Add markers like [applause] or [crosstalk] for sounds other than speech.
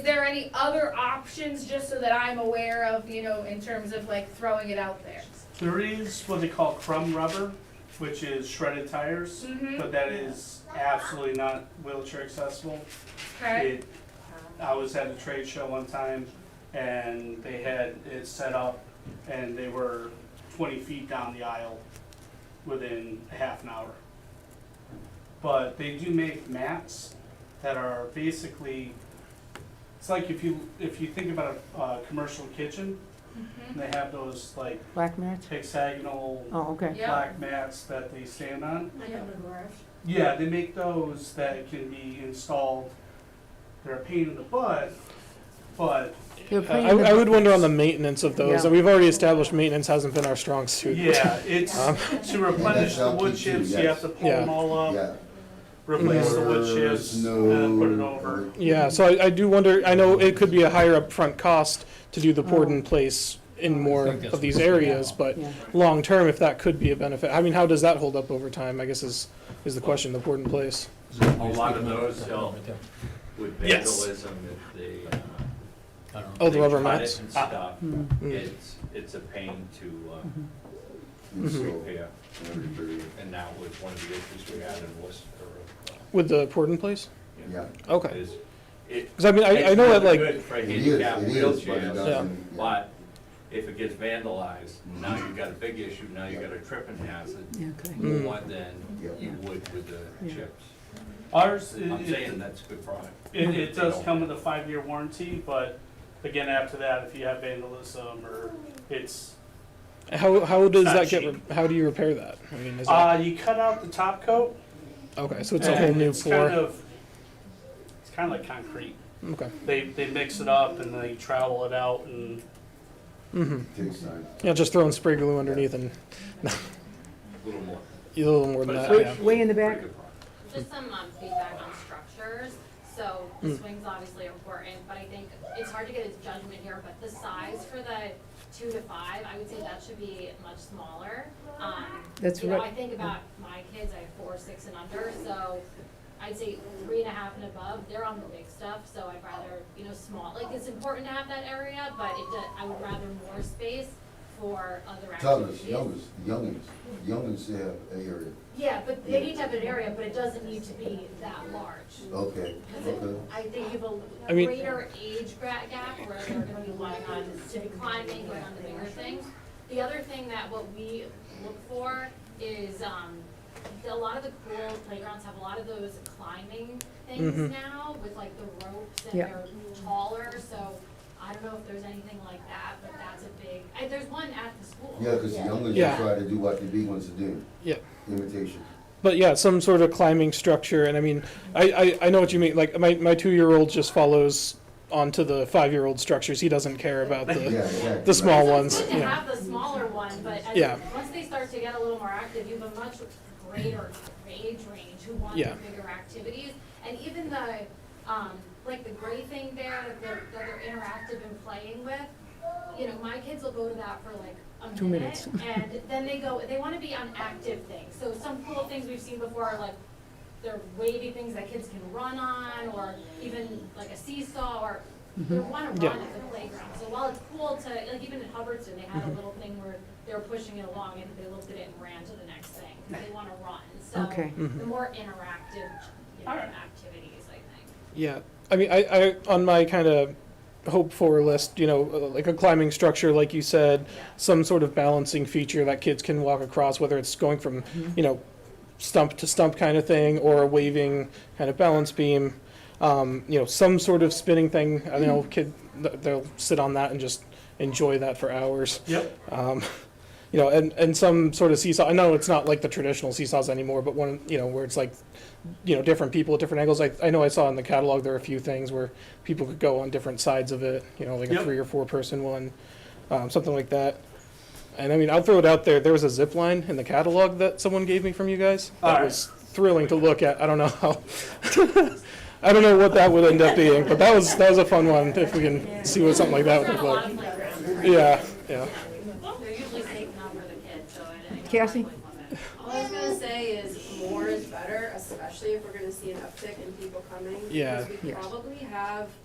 there any other options, just so that I'm aware of, you know, in terms of like throwing it out there? There is what they call crumb rubber, which is shredded tires, Mhm. but that is absolutely not wheelchair accessible. Okay, It- I was at a trade show one time and they had it set up and they were twenty feet down the aisle within a half an hour. But they do make mats that are basically, it's like if you, if you think about a, uh commercial kitchen, they have those like Black mats? hexagonal Oh, okay. Yeah. black mats that they stand on. Like Yeah. on the garage. Yeah, they make those that can be installed. They're a pain in the butt, but They're I, pretty Uh, I would different. wonder on the maintenance of those. Yeah. We've already established maintenance hasn't been our strong suit. [laughs] yeah, it's Um, to replenish the wood LPG, chips. You have yes. to pull them Yeah. all up, Yeah. replace the wood chips, There's and then put it no- over. Yeah, so I, I do wonder, I know it could be a higher upfront cost to do the poured in place in more of these areas, but Oh. Yeah. long term, if that could be a benefit, I mean, how does that hold up over time, I guess is, is the question, the poured in place? A lot of those help with Yes. vandalism if they. uh, Oh, the they rubber cut it mats? And stuff. Mm. Mm. It's, it's a pain to uh, So, repair, everybody, and that was one of the issues we had in Worcester. uh, With the poured in place? you know, Yeah, Okay, is- it- because I mean, I, I know that it's like, good For it is, handicap it is, but it wheelchairs, doesn't. yeah. Mm-hmm. but if it gets vandalized, now you've got a big issue, now you've got a tripping hazard, Yeah, okay. Mm. more than you would with the Yeah. chips. Ours, it, I'm saying it, that's a good product. it, it does come with a five-year warranty, but again, after that, if you have vandalism or it's, how, how does Not that get, cheap. re- how do you repair that? I mean, is that, uh, you cut out the top coat. okay, so it's a and whole new it's kind floor, of- It's kind of like concrete. okay. They, they mix it up and they trowel it out and Mm-hmm, Takes time. yeah, just throwing spray glue underneath and A little more. a little more than But it's that, not- yeah. Way- way in the back. Pretty good product. Just some um, feedback on structures. So Mm. the swing's obviously important, but I think it's hard to get a judgment here, but the size for the two to five, I would say that should be much smaller. Um, That's You know, right. I think about my kids, I have four, six and under, so I'd say three and a half and above, they're on the big stuff, so I'd rather, you know, small, like it's important to have that area, but it, do- I would rather more space for other Tell us, activities. youngins, youngins, youngins have a area, Yeah, but they need to have an area, but it doesn't need to be that large. okay, okay. I think you have I a mean- greater age gra- gap where they're gonna be going on civic climbing, going on the bigger things. The other thing that what we look for is, um, the- a lot of the cool playgrounds have a lot of those climbing Mhm. things now with like the ropes and Yeah. they're taller, so I don't know if there's anything like that, but that's a big, I, there's one at the school. Yeah, because youngins Yeah. will try to do what the big ones are doing, Yeah. imitation. But yeah, some sort of climbing structure, and I mean, I, I, I know what you mean. Like my, my two year old just follows onto the five year old structures. He doesn't care about Yeah, the exactly. the small So ones. It's good to Yeah, have the smaller one, but I Yeah. think once they start to get a little more active, you have a much greater age range who want Yeah. the bigger activities. And even the, um, like the gray thing there that they're, that they're interactive and playing with, you know, my kids will go to that for like a minute. Two minutes. [laughs] And then they go, they wanna be on active things. So some cool things we've seen before are like, they're wavy things that kids can run on, or even like a seesaw, or they wanna Yeah. run at the playground. So while it's cool to, like even at Hubbardston, they had a little thing where they were pushing it along and they looked at it and ran to the next thing, 'cause they wanna run. So Okay. the more interactive, you know, Alright. activities, I think. yeah. I mean, I, I on my kind of hope for list, you know, uh, like a climbing structure, like you said, some sort of balancing feature that kids can walk across, whether it's going from, you know, stump to stump kind of thing, or a waving kind of balance beam, um, you know, some sort of spinning thing. I know kid, th- they'll sit on that and just enjoy that for hours. Yep. Um, you know, and, and some sort of seesaw. I know it's not like the traditional seesaws anymore, but one, you know, where it's like, you know, different people at different angles. I, I know I saw in the catalog there are a few things where people could go on different sides of it, you know, like Yep. a three or four person one, um, something like that. And I mean, I'll throw it out there. There was a zip line in the catalog that someone gave me from you guys. That Alright. was thrilling to look at. I don't know how. [laughs] I don't know what that would end up being, but that was that was a fun one. If we can see what something like that would We're on look a lot like. of playgrounds. Yeah, yeah. They're usually safe not for the kids, so I I don't. Cassie? like one minute. All I was gonna say is more is better, especially if we're gonna see an uptick in people coming. Yeah. Because we Yes. probably have